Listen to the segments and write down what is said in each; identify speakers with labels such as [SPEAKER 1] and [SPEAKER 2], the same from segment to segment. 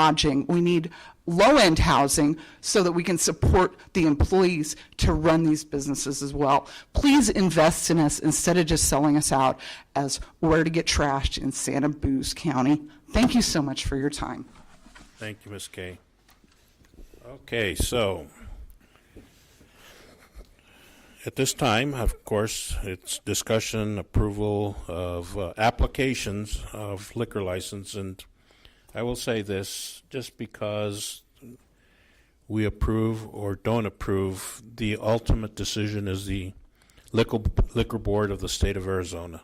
[SPEAKER 1] lodging. We need low-end housing so that we can support the employees to run these businesses as well. Please invest in us instead of just selling us out as where to get trashed in Santa Cruz County. Thank you so much for your time.
[SPEAKER 2] Thank you, Ms. Kay. Okay, so at this time, of course, it's discussion, approval of uh, applications of liquor license, and I will say this, just because we approve or don't approve, the ultimate decision is the liquor, liquor board of the state of Arizona.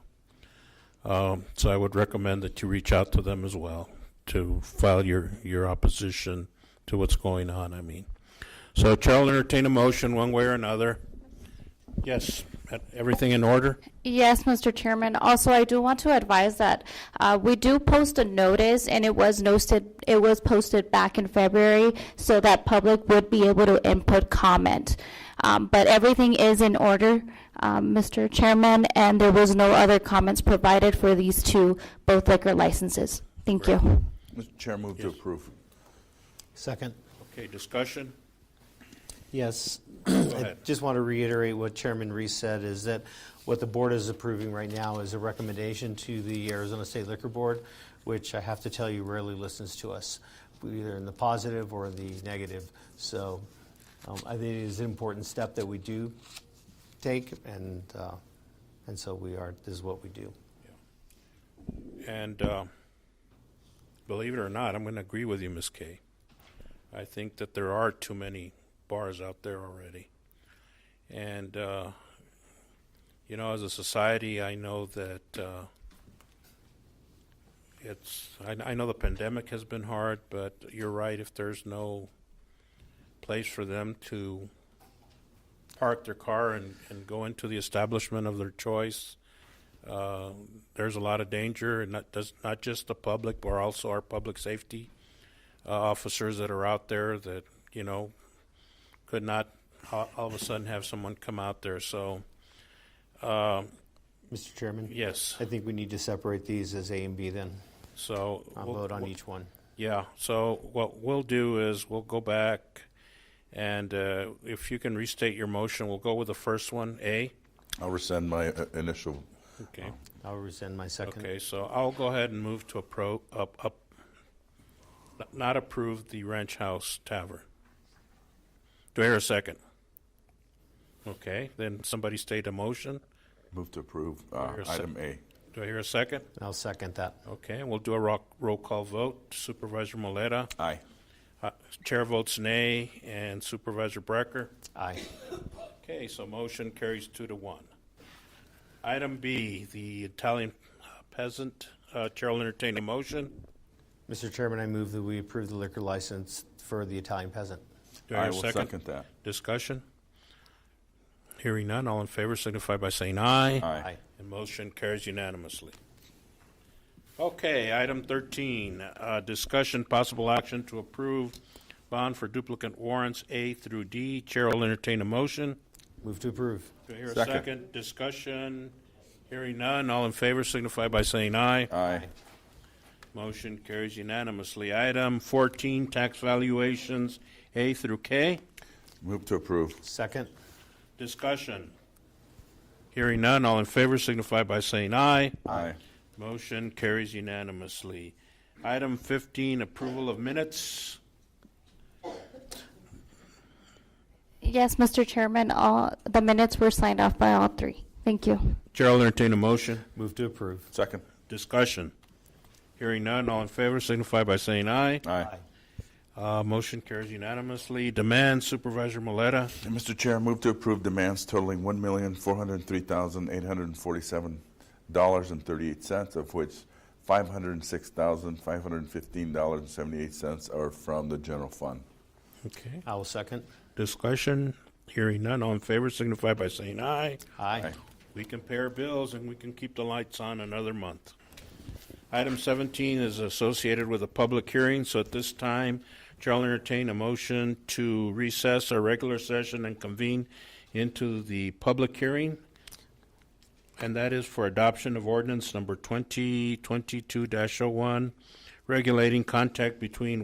[SPEAKER 2] So I would recommend that you reach out to them as well to file your, your opposition to what's going on, I mean. So Chair will entertain a motion one way or another. Yes, everything in order?
[SPEAKER 3] Yes, Mr. Chairman. Also, I do want to advise that uh, we do post a notice, and it was noted, it was posted back in February, so that public would be able to input comment. Um, But everything is in order, um, Mr. Chairman, and there was no other comments provided for these two, both liquor licenses. Thank you.
[SPEAKER 4] Mr. Chair, move to approve.
[SPEAKER 5] Second.
[SPEAKER 2] Okay, discussion?
[SPEAKER 5] Yes. I
[SPEAKER 2] ahead.
[SPEAKER 5] just want to reiterate what Chairman Reese said, is that what the board is approving right now is a recommendation to the Arizona State Liquor Board, which I have to tell you rarely listens to us, either in the positive or the negative. So um, I think it is an important step that we do take, and, uh, and so we are, this is what we do.
[SPEAKER 2] And uh, believe it or not, I'm going to agree with you, Ms. Kay. I think that there are too many bars out there already. And, uh, you know, as a society, I know that uh, it's, I, I know the pandemic has been hard, but you're right, if there's no place for them to park their car and, and go into the establishment of their choice, uh, there's a lot of danger, and not, does, not just the public, but also our public safety uh, officers that are out there that, you know, could not all, all of a sudden have someone come out there. So,
[SPEAKER 5] Mr. Chairman?
[SPEAKER 2] yes.
[SPEAKER 5] I think we need to separate these as A and B then.
[SPEAKER 2] So,
[SPEAKER 5] I'll
[SPEAKER 2] we'll-
[SPEAKER 5] vote on
[SPEAKER 2] we'll-
[SPEAKER 5] each one.
[SPEAKER 2] Yeah. So, what we'll do is we'll go back, and uh, if you can restate your motion, we'll go with the first one, A.
[SPEAKER 4] I'll rescind my uh, initial,
[SPEAKER 2] Okay.
[SPEAKER 5] I'll rescind my second.
[SPEAKER 2] Okay, so I'll go ahead and move to appro, up, up, not approve the Ranch House Tavern. Do I hear a second? Okay, then somebody state a motion.
[SPEAKER 4] move to approve uh,
[SPEAKER 2] Your sec-
[SPEAKER 4] item A.
[SPEAKER 2] Do I hear a second?
[SPEAKER 5] I'll second that.
[SPEAKER 2] Okay, and we'll do a rock, roll call vote. Supervisor Maleta,
[SPEAKER 4] Aye.
[SPEAKER 2] uh, Chair votes nay, and Supervisor Brecker.
[SPEAKER 5] Aye.
[SPEAKER 2] Okay, so motion carries two to one. Item B, the Italian peasant, uh, Chair will entertain a motion.
[SPEAKER 5] Mr. Chairman, I move that we approve the liquor license for the Italian peasant.
[SPEAKER 2] Do I hear a
[SPEAKER 4] will second that.
[SPEAKER 2] Discussion? Hearing none, all in favor signify by saying aye.
[SPEAKER 4] Aye.
[SPEAKER 2] And motion carries unanimously. Okay, item 13, uh, discussion, possible action to approve bond for duplicate warrants A through D. Chair will entertain a motion.
[SPEAKER 5] Move to approve.
[SPEAKER 2] Do I hear a
[SPEAKER 4] Second.
[SPEAKER 2] second? Discussion? Hearing none, all in favor signify by saying aye.
[SPEAKER 4] Aye.
[SPEAKER 2] Motion carries unanimously. Item 14, tax valuations A through K.
[SPEAKER 4] Move to approve.
[SPEAKER 5] Second.
[SPEAKER 2] Discussion. Hearing none, all in favor signify by saying aye.
[SPEAKER 4] Aye.
[SPEAKER 2] Motion carries unanimously. Item 15, approval of minutes.
[SPEAKER 3] Yes, Mr. Chairman, all, the minutes were signed off by all three. Thank you.
[SPEAKER 2] Chair will entertain a motion.
[SPEAKER 5] Move to approve.
[SPEAKER 4] Second.
[SPEAKER 2] Discussion. Hearing none, all in favor signify by saying aye.
[SPEAKER 4] Aye.
[SPEAKER 2] Uh, Motion carries unanimously. Demand Supervisor Maleta.
[SPEAKER 4] And Mr. Chair, move to approve demands totaling one million, four hundred and three thousand, eight hundred and forty-seven dollars and thirty-eight cents, of which five hundred and six thousand, five hundred and fifteen dollars and seventy-eight cents are from the general fund.
[SPEAKER 2] Okay.
[SPEAKER 5] I will second.
[SPEAKER 2] Discussion. Hearing none, all in favor signify by saying aye.
[SPEAKER 5] Aye.
[SPEAKER 4] Aye.
[SPEAKER 2] We can pay our bills and we can keep the lights on another month. Item 17 is associated with a public hearing, so at this time, Chair will entertain a motion to recess our regular session and convene into the public hearing, and that is for adoption of ordinance number 2022-01, regulating oh contact between